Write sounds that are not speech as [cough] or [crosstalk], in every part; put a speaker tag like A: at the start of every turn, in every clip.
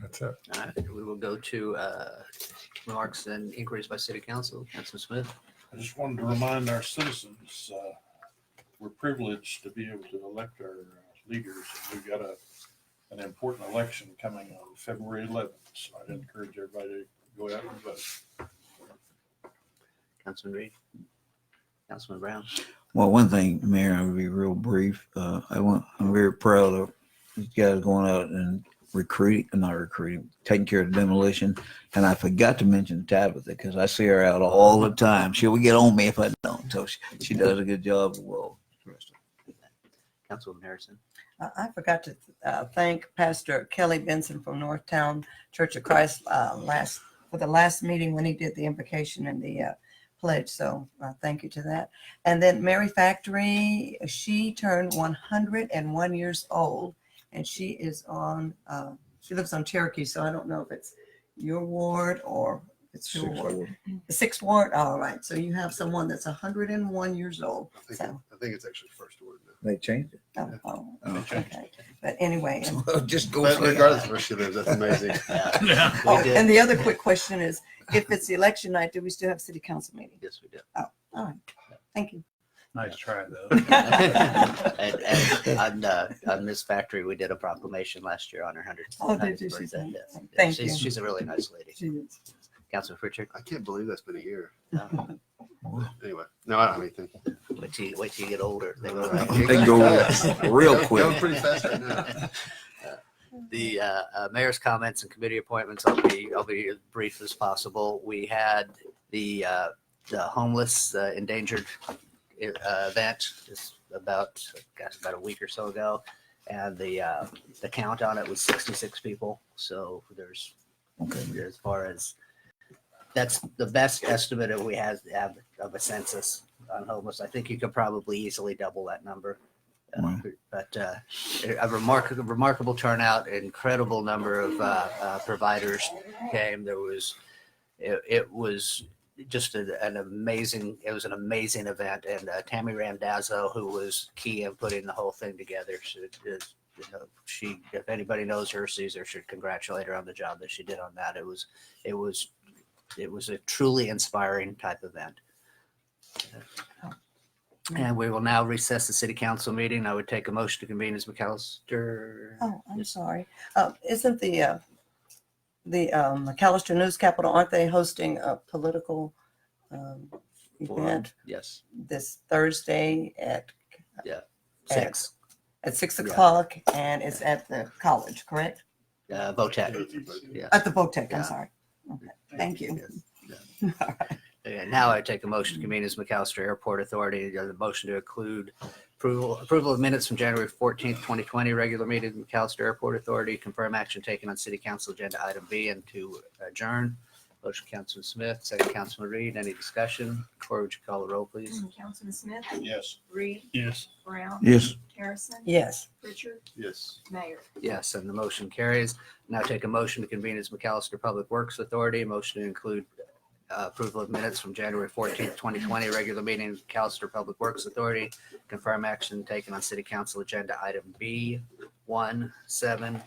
A: That's it.
B: All right, we will go to uh, remarks and inquiries by city council. Councilman Smith.
C: I just wanted to remind our citizens, uh, we're privileged to be able to elect our uh, leaders. We've got a, an important election coming on February eleventh, so I'd encourage everybody to go out and vote.
B: Councilman Reed. Councilman Brown.
D: Well, one thing, Mayor, I'll be real brief. Uh, I want, I'm very proud of these guys going out and recruiting, not recruiting, taking care of demolition. And I forgot to mention Tabitha because I see her out all the time. She will get on me if I don't. So she, she does a good job. Well, the rest of
B: Councilman Harrison.
E: I I forgot to uh, thank Pastor Kelly Benson from Northtown Church of Christ uh, last, for the last meeting when he did the invocation and the uh, pledge. So uh, thank you to that. And then Mary Factory, she turned 101 years old and she is on, uh, she lives on Cherokee. So I don't know if it's your ward or if it's your
D: Six
E: ward.
D: ward.
E: The Sixth ward, all right. So you have someone that's 101 years old.
F: I think,
E: So,
F: I think it's actually first word. now.
D: They changed it.
E: oh, oh,
C: They
D: Oh.
C: changed
E: okay. But anyway. and-
D: So just go
F: But
D: for it.
F: regardless of where she lives, that's amazing.
B: Yeah,
C: Yeah.
B: We
E: Oh,
B: did.
E: and the other quick question is, if it's election night, do we still have city council meeting?
B: Yes,
E: [laughs]
B: we did.
E: All right, thank you.
C: Nice try, though.
B: And, and on, uh, on Miss Factory, we did a proclamation last year on her hundred.
E: Oh, did you? She's a-
B: Yes. Yeah,
E: Thank
B: She's,
E: you.
B: she's a really nice lady.
E: Jeez.
B: Councilman Pritchard.
F: I can't believe that's been a year.
B: No.
F: Anyway, no, I don't have anything.
B: Wait till, you- wait till you get older. They
D: [laughs]
B: uh, go right.
D: They
B: [laughs]
D: go real
F: Going-
D: quick.
F: Going pretty fast right now.
B: the uh, uh, mayor's comments and committee appointments. I'll be I'll be as brief as possible. We had the uh, the homeless uh, endangered uh, event just about gosh about a week or so ago, and the uh, the count on it was sixty six people. So there's
D: Okay.
B: as far as that's the best estimate that we have, have of a census on homeless. I think you could probably easily double that number. Uh,
D: Wow.
B: But uh, a remarkable, remarkable turnout, incredible number of uh, uh, providers came. There was, it, it was just a, an amazing, it was an amazing event. And uh, Tammy Randazzo, who was key in putting the whole thing together, she, uh, is you know, she, if anybody knows her, sees her, should congratulate her on the job that she did on that. It was, it was, it was a truly inspiring type event. And we will now recess the city council meeting. I would take a motion to convene as McAllister.
E: [laughs] Oh, I'm
B: Yes.
E: sorry. Uh, Isn't the, uh, the um, McAllister News Capital, aren't they hosting a political um,
B: Forum.
E: event
B: Yes,
E: this Thursday at,
B: six,
E: at six
B: Yeah.
E: o'clock? And it's at the college, correct?
B: uh, VOTEC. Yeah.
E: At the Votek,
B: Yeah.
E: I'm sorry. Okay, Thank you.
B: And now I take a motion to convene as McAllister Airport Authority, uh, the motion to include approval, approval of minutes from January fourteenth, twenty twenty, regular meeting of McAllister Airport Authority, confirm action taken on city council agenda item B and to adjourn. Motion Councilman Smith, second Councilman Reed, any discussion? Corey, would you call the roll, please?
G: Councilman Smith,
C: Yes.
G: Reed,
C: Yes.
G: Brown,
D: Yes.
G: Harrison,
E: Yes.
G: Richard,
F: Yes.
G: Mayor.
B: Yes, and the motion carries. Now take a motion to convene as McAllister Public Works Authority. Motion to include uh, approval of minutes from January fourteenth, twenty twenty, regular meeting of McAllister Public Works Authority. Confirm action taken on city council agenda item B, one, seven,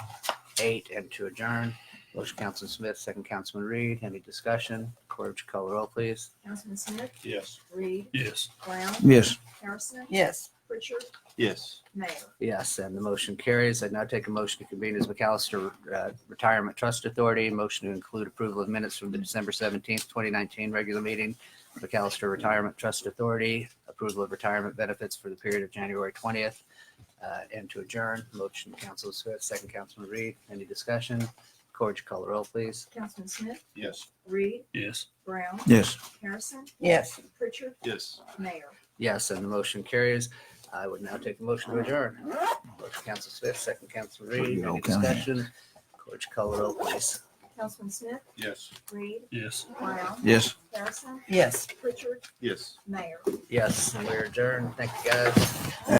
B: eight, and to adjourn. Motion Councilman Smith, second Councilman Reed. Any discussion? Corvage would you call the roll, please?
G: Councilman Smith,
C: Yes.
G: Reed,
C: Yes.
G: Brown,
D: Yes.
G: Harrison,
E: Yes.
G: Richard,
F: Yes.
G: Mayor.
B: Yes, and the motion carries. I now take a motion to convene as McAllister uh, Retirement Trust Authority. Motion to include approval of minutes from the December seventeenth, twenty nineteen regular meeting. McAllister Retirement Trust Authority, approval of retirement benefits for the period of January twentieth. uh, And to adjourn, motion Council Smith, second Councilman Reed. Any discussion? Corge, call the roll, please.
G: Councilman Smith,
C: Yes.
G: Reed,
C: Yes.
G: Brown,
D: Yes.
G: Harrison,
E: Yes.
G: Richard,
F: Yes.
G: Mayor.
B: Yes, and the motion carries. I would now take a motion to adjourn. Motion Council Smith, second Councilman Reed. Any
D: Okay.
B: discussion? Corge, call the roll, please.
G: Councilman Smith,
C: Yes.
G: Reed,
C: Yes.
G: Brown,
D: Yes.
G: Harrison,
E: Yes.
G: Richard,
F: Yes.
G: Mayor.
B: Yes, and we're adjourned. Thank you, guys.